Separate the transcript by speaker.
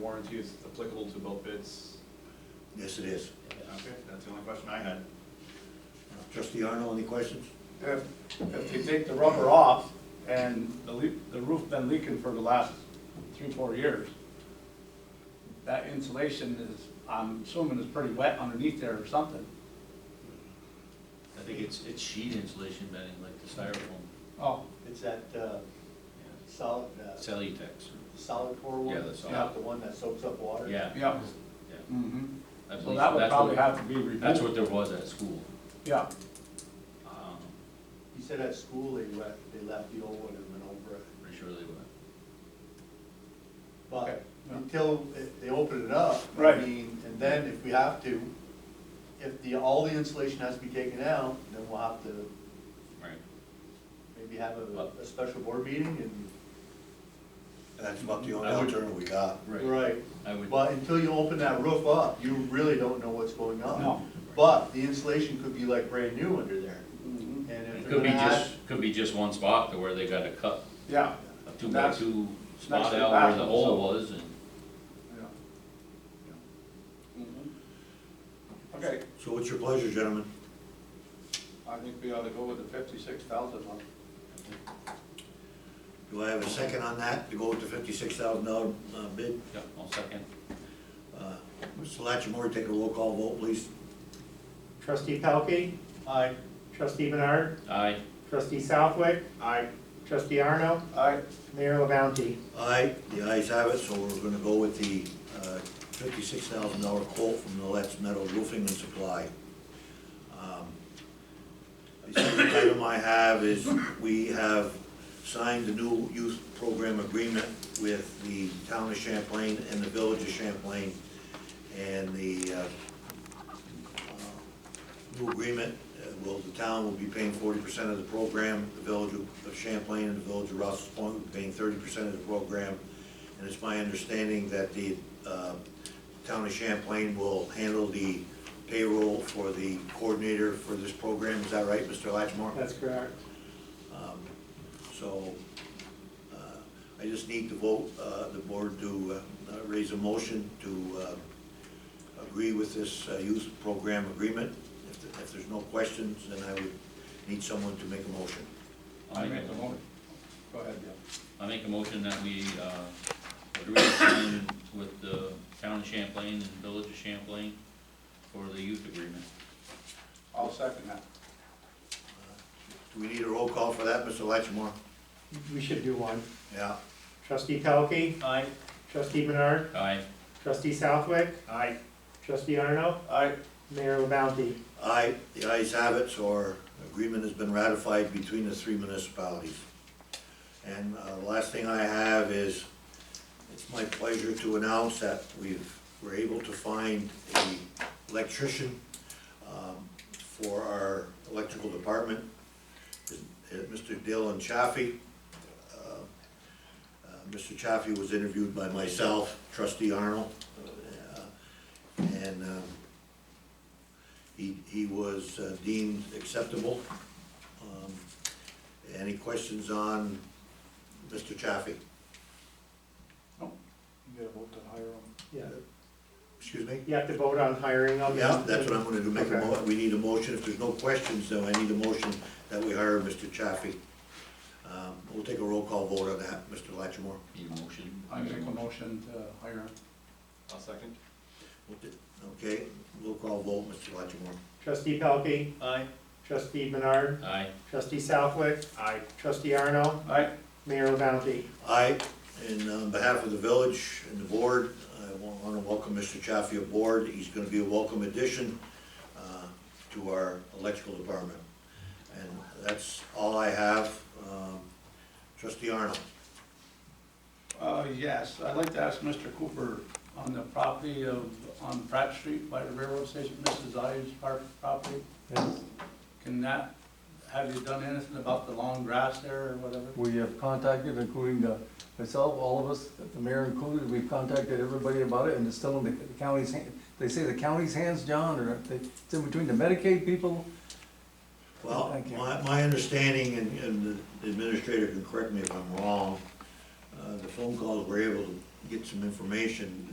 Speaker 1: Warranty is applicable to both bids?
Speaker 2: Yes, it is.
Speaker 1: Okay, that's the only question I had.
Speaker 2: Trustee Arnold, any questions?
Speaker 3: If, if you take the rubber off and the leak, the roof been leaking for the last three, four years, that insulation is, I'm assuming is pretty wet underneath there or something.
Speaker 4: I think it's, it's sheet insulation bedding, like the styrofoam,
Speaker 3: Oh,
Speaker 5: It's that uh, solid, uh,
Speaker 4: Cellutex.
Speaker 5: solid core one?
Speaker 4: Yeah, the solid.
Speaker 5: Not the one that soaks up water?
Speaker 4: Yeah,
Speaker 3: yeah.
Speaker 4: yeah.
Speaker 3: Mm-hmm.
Speaker 4: I
Speaker 3: So
Speaker 4: believe
Speaker 3: that would
Speaker 4: that's
Speaker 3: probably
Speaker 4: what-
Speaker 3: have to be removed.
Speaker 4: That's what there was at school.
Speaker 3: Yeah,
Speaker 4: Um,
Speaker 5: You said at school they left, they left the old one and went over it.
Speaker 4: Pretty sure they were.
Speaker 3: Okay,
Speaker 5: But
Speaker 3: yeah.
Speaker 5: until it- they open it up, I
Speaker 3: Right.
Speaker 5: mean, and then if we have to, if the, all the insulation has to be taken out, then we'll have to
Speaker 4: Right.
Speaker 5: maybe have a, a special board meeting
Speaker 2: And that's about the only
Speaker 4: I would-
Speaker 2: alternative we got.
Speaker 5: and.
Speaker 4: Right. I would,
Speaker 5: But until you open that roof up, you really don't know what's going on.
Speaker 3: No.
Speaker 5: But the insulation could be like brand new under there.
Speaker 3: Mhm.
Speaker 5: And if
Speaker 4: it
Speaker 5: they're
Speaker 4: could be
Speaker 5: gonna add-
Speaker 4: just, could be just one spot to where they got a cut,
Speaker 3: yeah.
Speaker 4: a two by
Speaker 3: That's-
Speaker 4: two
Speaker 3: next
Speaker 4: spot
Speaker 3: to the
Speaker 4: out where the
Speaker 3: bathroom,
Speaker 4: hole
Speaker 3: so-
Speaker 4: was and.
Speaker 3: Yeah. Okay,
Speaker 2: So what's your pleasure, gentlemen?
Speaker 3: I think we ought to go with the fifty-six thousand one.
Speaker 2: Do I have a second on that, to go with the fifty-six thousand dollar uh, bid?
Speaker 4: Yep, I'll second.
Speaker 2: Uh, Mr. Latchmore, take a roll call vote, please.
Speaker 6: Trustee Pelkey,
Speaker 5: Aye.
Speaker 6: trustee Menard,
Speaker 4: Aye,
Speaker 6: trustee Southwick,
Speaker 3: Aye.
Speaker 6: trustee Arno,
Speaker 3: Aye.
Speaker 6: Mayor LaBounty.
Speaker 2: Aye, the ayes have it, so we're gonna go with the uh, fifty-six thousand dollar quote from the Let's Metal Roofing and Supply. Um, The second item I have is, we have signed the new youth program agreement with the town of Champlain and the village of Champlain. And the uh, uh, new agreement, uh, will, the town will be paying forty percent of the program, the village of Champlain and the village of Rouse's Point will be paying thirty percent of the program. And it's my understanding that the uh, town of Champlain will handle the payroll for the coordinator for this program, is that right, Mr. Latchmore?
Speaker 6: That's correct.
Speaker 2: Um, So, uh, I just need to vote, uh, the board to uh, uh, raise a motion to uh, agree with this uh, youth program agreement. If th- If there's no questions, then I would need someone to make a motion.
Speaker 4: I'll
Speaker 3: I
Speaker 4: make
Speaker 3: make
Speaker 4: a
Speaker 3: the
Speaker 4: motion,
Speaker 3: motion. Go ahead, Bill.
Speaker 4: I make a motion that we, uh, agree to sign with the town of Champlain and village of Champlain for the youth agreement.
Speaker 3: I'll second that.
Speaker 2: Do we need a roll call for that, Mr. Latchmore?
Speaker 6: We should do one.
Speaker 2: Yeah.
Speaker 6: Trustee Pelkey,
Speaker 5: Aye.
Speaker 6: trustee Menard,
Speaker 4: Aye,
Speaker 6: trustee Southwick,
Speaker 5: Aye.
Speaker 6: trustee Arno,
Speaker 3: Aye.
Speaker 6: Mayor LaBounty.
Speaker 2: Aye, the ayes have it, so our agreement has been ratified between the three municipalities. And uh, the last thing I have is, it's my pleasure to announce that we've, we're able to find a electrician um, for our electrical department, Uh, Mr. Dylan Chaffee. Uh, uh, Mr. Chaffee was interviewed by myself, trustee Arnold, uh, and um, he, he was uh, deemed acceptable. Um, Any questions on Mr. Chaffee?
Speaker 3: You gotta vote to hire him.
Speaker 6: Yeah.
Speaker 2: Excuse me?
Speaker 6: You have to vote on hiring of.
Speaker 2: Yeah, that's what I'm gonna do, make a mo,
Speaker 6: Okay.
Speaker 2: we need a motion, if there's no questions, though, I need a motion that we hire Mr. Chaffee. Um, We'll take a roll call vote on that, Mr. Latchmore.
Speaker 4: need a motion?
Speaker 3: I make a motion to hire him.
Speaker 1: I'll second.
Speaker 2: Okay, roll call vote, Mr. Latchmore.
Speaker 6: Trustee Pelkey,
Speaker 5: Aye.
Speaker 6: trustee Menard,
Speaker 4: Aye.
Speaker 6: trustee Southwick. Aye. Trustee Arno,
Speaker 3: Aye.
Speaker 6: Mayor LaBounty.
Speaker 2: Aye, and on uh, behalf of the village and the board, I want to welcome Mr. Chaffee aboard. He's going to be a welcome addition uh, to our electrical department. And that's all I have. Um, Trustee Arnold,
Speaker 3: Uh, yes, I'd like to ask Mr. Cooper on the property of, on Pratt Street by the railroad station, Mrs. Ives Park property. Can that, have you done anything about the long grass there or whatever?
Speaker 7: We have contacted, including the, myself, all of us, the mayor included, we've contacted everybody about it, and it's still in the county's, hand- they say the county's hands, John, or they- it's in between the Medicaid people.
Speaker 2: well,
Speaker 7: Thank you.
Speaker 2: my, my understanding, and- and the administrator can correct me if I'm wrong, uh, the phone calls were able to get some information